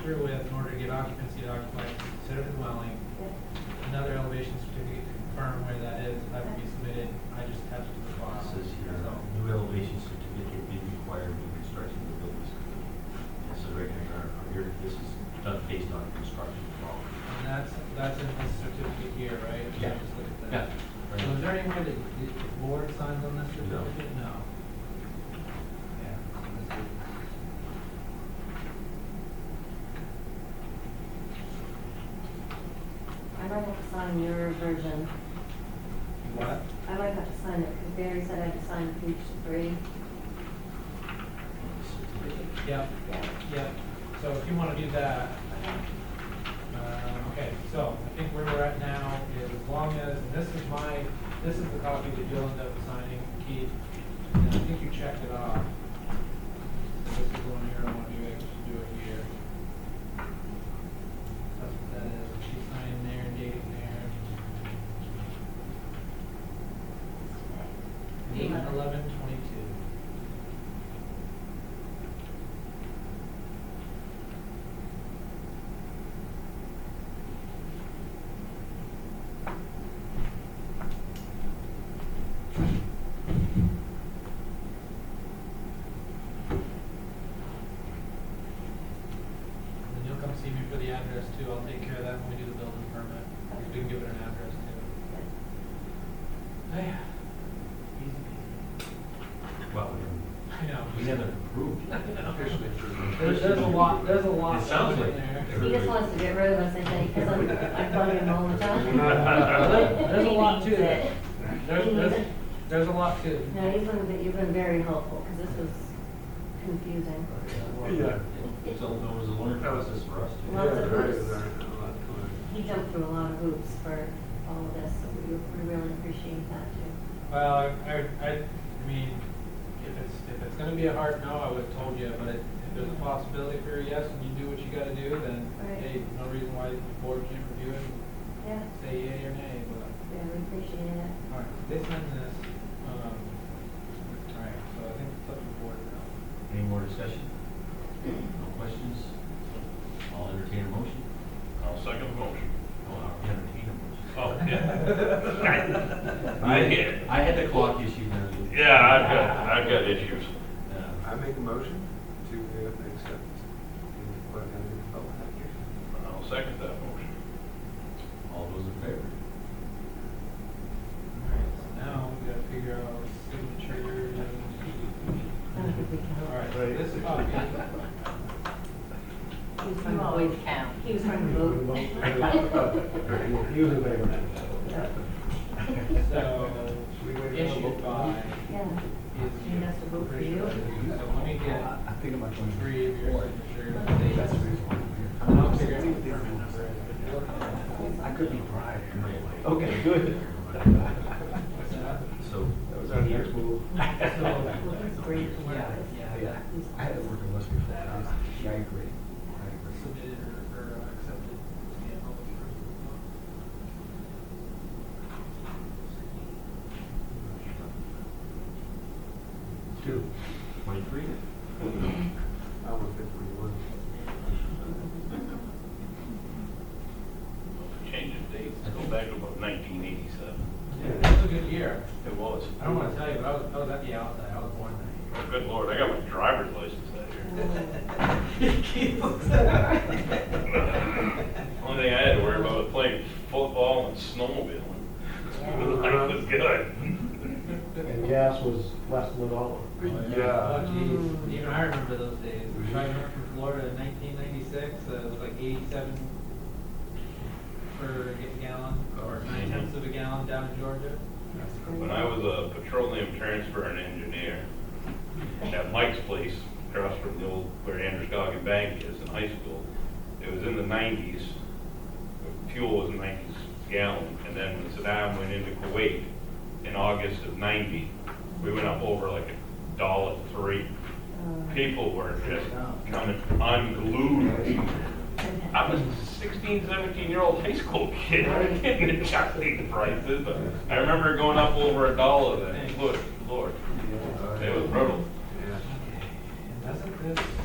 through with in order to get occupancy to occupy, consider the dwelling. Another elevation certificate to confirm where that is, that would be submitted, I just attached it to the file. Says here, So, new elevation certificate being required when construction of the building. This is right here, or here, this is done based on construction law. And that's, that's in this certificate here, right? Yeah. Just look at Yeah. that. So is there any way that the the board signs on this No. certificate? No. Yeah. so this is- I might have to sign your version. What? I might have to sign it, because Barry said I had to sign page three. Certificate. Yep, Yeah. yep. So if you want to do that, Um, Okay, so I think where we're at now is as long as, and this is my, this is the copy that you'll end up signing, Keith, and I think you checked it off. So This is one here, I want to do it, just do it here. That's what that is, she signed there, dated there. Eight Eleven. eleven twenty-two. And then you'll come see me for the address too, I'll take care of that when we do the building permit, because we can give it an address too. Yeah. Easy peasy. Well, we- I know. we haven't approved. it. Officially approved. There's, there's a lot, there's a lot It sounds in like- there. He just wants to get rid of us, I think, because I'm, I'm bugging him all the There- time. There's a lot to He needs it. it. There's, He needs there's, it. there's a lot to it. No, you've been, you've been very helpful, because this was confusing. Yeah. So it was a learning process for us. too. Lots of Yeah, there is, hoops. there is a lot to it. He jumped through a lot of hoops for all of this, so we, we really appreciate that too. Well, I- I, I, I mean, if it's, if it's gonna be a hard no, I would've told you, but it- if there's a possibility for a yes and you do what you gotta do, then, Right. hey, no reason why the board can't review it and Yeah, say yea or nay, but, yeah, we appreciate it. alright, they signed this, um, alright, so I think it's up to the board now. Any more discussion? No questions? I'll entertain a motion. I'll second the motion. Oh, I'll entertain a motion. Oh, yeah. I get it. I had the clock issue now. Yeah, I've got, I've got issues. Uh, I make a motion to uh, accept the plan and the public application. I'll second that motion. All those in favor? Alright, so now we gotta figure out signature and. I don't think we can. Alright, so this is copy. He was trying to vote. He was trying to vote. He was in favor. So, we wait for the issued vote? by Yeah, is. He has to vote for you? So let me get I think I'm going to. three of your signatures. That's the reason why And I'm I'll here. figure out what the permit number is. I could be bribed. Right. Okay, good. What's that? So, That was our next move. well, he's great to work Yeah, with. Yeah, I had to work in West before. Yeah, I agree. I Submitted or, or accepted. Yeah, published first. Two. twenty-three? I was fifty-one. Change the dates, go back to about nineteen eighty-seven. Yeah, That's a good year. It was. I don't wanna tell you, but I was, I was at the outside, I was born that Oh, good lord, I got my driver's license that year. year. Keith looks at Only thing I had to worry about was playing football and snowmobiling. Life was good. And gas was less than a dollar. Oh Yeah. jeez, even I remember those days, driving up from Florida in nineteen ninety-six, uh, it was like eighty-seven per gallon, or nine tenths of a gallon down in Georgia. That's great. When I was a petroleum transfer and engineer at Mike's place across from the old, where Andrews Goggin Bank is in high school, it was in the nineties. Fuel was nineties gallon, and then when Saddam went into Kuwait in August of ninety, we went up over like a dollar three. Uh, People were just coming unglued. okay. I was a 16, 17 year old high school kid, getting the chocolate prices, but I remember going up over a dollar then, Lord, Lord, Uh, it was brutal. Yeah. And doesn't this